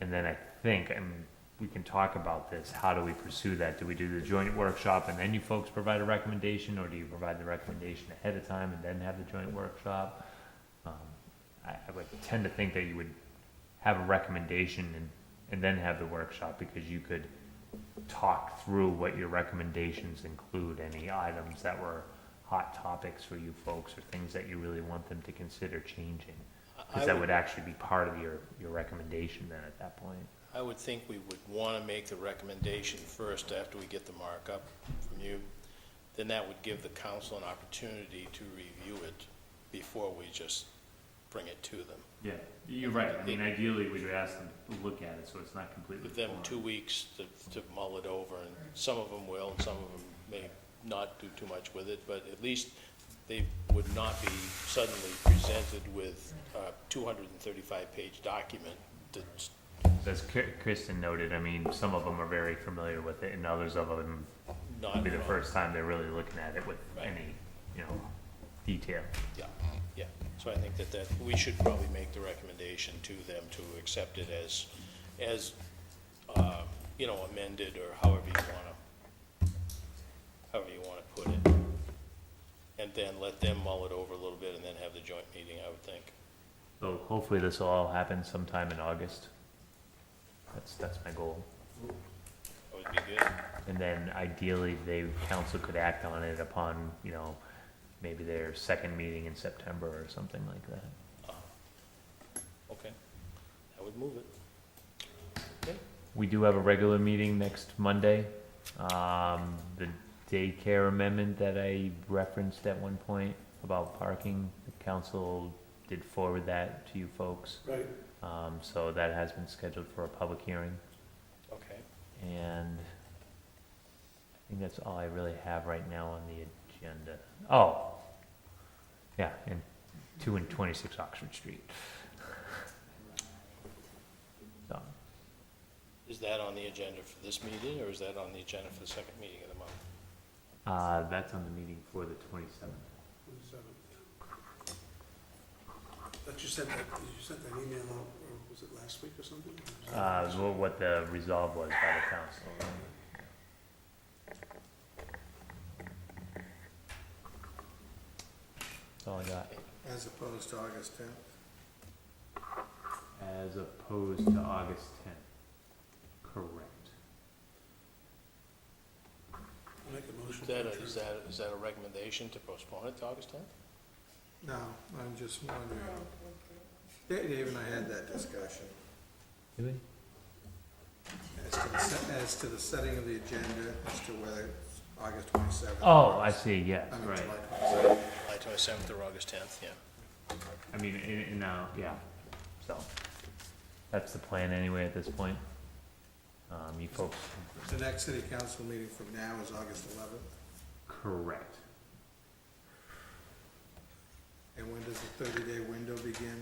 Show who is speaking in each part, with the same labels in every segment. Speaker 1: And then I think, and we can talk about this, how do we pursue that? Do we do the joint workshop and then you folks provide a recommendation? Or do you provide the recommendation ahead of time and then have the joint workshop? Um, I, I would tend to think that you would have a recommendation and, and then have the workshop because you could talk through what your recommendations include, any items that were hot topics for you folks or things that you really want them to consider changing.
Speaker 2: I
Speaker 1: Because that
Speaker 2: would-
Speaker 1: would actually be part of your, your recommendation then at that point.
Speaker 2: I would think we would want to make the recommendation first after we get the markup from you. Then that would give the council an opportunity to review it before we just bring it to them.
Speaker 1: Yeah, you're right. I mean, ideally, we would ask them to look at it, so it's not completely.
Speaker 2: Give them
Speaker 1: foreign.
Speaker 2: two weeks to, to mull it over, and some of them will, and some of them may not do too much with it, but at least they would not be suddenly presented with a two hundred and thirty-five page document that's
Speaker 1: As Ki- Kristen noted, I mean, some of them are very familiar with it, and others of them,
Speaker 2: not.
Speaker 1: it'll be the
Speaker 2: wrong.
Speaker 1: first time they're really looking at it with
Speaker 2: Right.
Speaker 1: any, you know, detail.
Speaker 2: Yeah, yeah. So I think that that, we should probably make the recommendation to them to accept it as, as, uh, you know, amended or however you wanna, however you wanna put it. And then let them mull it over a little bit and then have the joint meeting, I would think.
Speaker 1: So hopefully this will all happen sometime in August. That's, that's my goal.
Speaker 2: That would be good.
Speaker 1: And then ideally, they, council could act on it upon, you know, maybe their second meeting in September or something like that.
Speaker 2: Okay. I would move it.
Speaker 1: We do have a regular meeting next Monday. Um, the daycare amendment that I referenced at one point about parking, the council did forward that to you folks.
Speaker 3: Right,
Speaker 1: Um, so that has been scheduled for a public hearing.
Speaker 2: Okay.
Speaker 1: And I think that's all I really have right now on the agenda. Oh, yeah, and two and twenty-six Oxford Street. So,
Speaker 2: Is that on the agenda for this meeting or is that on the agenda for the second meeting of the month?
Speaker 1: uh, that's on the meeting for the twenty-seventh.
Speaker 3: twenty-seventh. But you sent that, you sent that email out, or was it last week or something?
Speaker 1: Uh, well, what the resolve was by the council. That's all I got.
Speaker 4: As opposed to August tenth?
Speaker 1: As opposed to August tenth. Correct.
Speaker 3: Make a motion. to
Speaker 2: Is that, a-
Speaker 3: adjourn.
Speaker 2: is that, is that a recommendation to postpone it to August tenth?
Speaker 4: No, I'm just wondering. Da- Dave and I had that discussion
Speaker 1: Really?
Speaker 4: as to the, se- as to the setting of the agenda, as to whether it's August twenty-seventh.
Speaker 1: Oh, I see, yes,
Speaker 4: I mean,
Speaker 1: right.
Speaker 4: July 27th.
Speaker 2: July twenty-seventh or August tenth, yeah.
Speaker 1: I mean, in, in, uh, yeah, so. That's the plan anyway at this point. Um, you folks,
Speaker 4: The next city council meeting from now is August eleventh,
Speaker 1: correct.
Speaker 4: and when does the thirty-day window begin?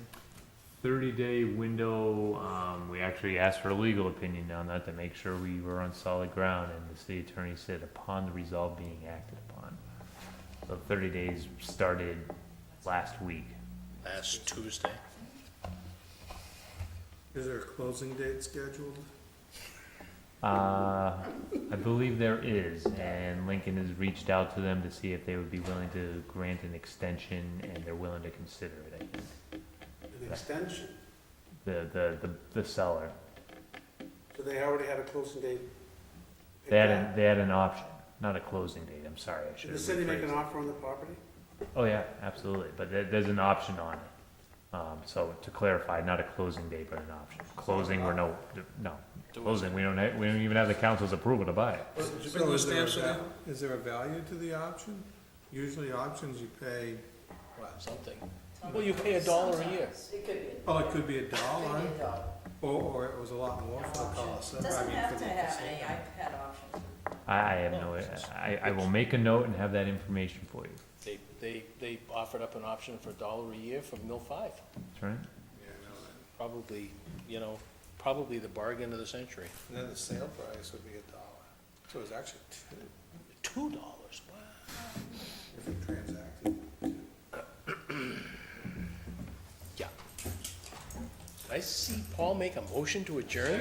Speaker 1: Thirty-day window, um, we actually asked for a legal opinion on that to make sure we were on solid ground, and the city attorney said upon the resolve being acted upon. So thirty days started last week.
Speaker 2: Last Tuesday.
Speaker 4: Is there a closing date scheduled?
Speaker 1: Uh, I believe there is, and Lincoln has reached out to them to see if they would be willing to grant an extension, and they're willing to consider it, I think.
Speaker 3: An extension,
Speaker 1: The, the, the, the seller.
Speaker 3: so they already had a closing date.
Speaker 1: They had, a- they had an option, not a closing date, I'm sorry, I
Speaker 3: Did
Speaker 1: should have
Speaker 3: the city make an
Speaker 1: rephrased.
Speaker 3: offer on the property?
Speaker 1: Oh, yeah, absolutely, but there, there's an option on it. Um, so to clarify, not a closing date, but an option. Closing, we're no, no, closing, we don't, have- we don't even have the council's approval to buy it.
Speaker 4: So is there a val- Is there a value to the option? Usually options you pay, what?
Speaker 2: Something. Well, you pay a dollar a year.
Speaker 5: It could be.
Speaker 4: Oh, it could be a dollar.
Speaker 5: Maybe a dollar.
Speaker 4: Or, or it was a lot more for the cost. I
Speaker 5: Doesn't
Speaker 4: mean,
Speaker 5: have
Speaker 4: for
Speaker 5: to
Speaker 4: the-
Speaker 5: have any iPad option.
Speaker 1: I, I have no, I, I will make a note and have that information for you,
Speaker 2: They, they, they offered up an option for a dollar a year from Mill Five.
Speaker 1: that's right?
Speaker 4: Yeah, I know that.
Speaker 2: Probably, you know, probably the bargain of the century.
Speaker 4: And Then the sale price would be a dollar. So it's actually two
Speaker 2: Two dollars, wow.
Speaker 4: if you transacted.
Speaker 2: Yeah. Did I see Paul make a motion to adjourn?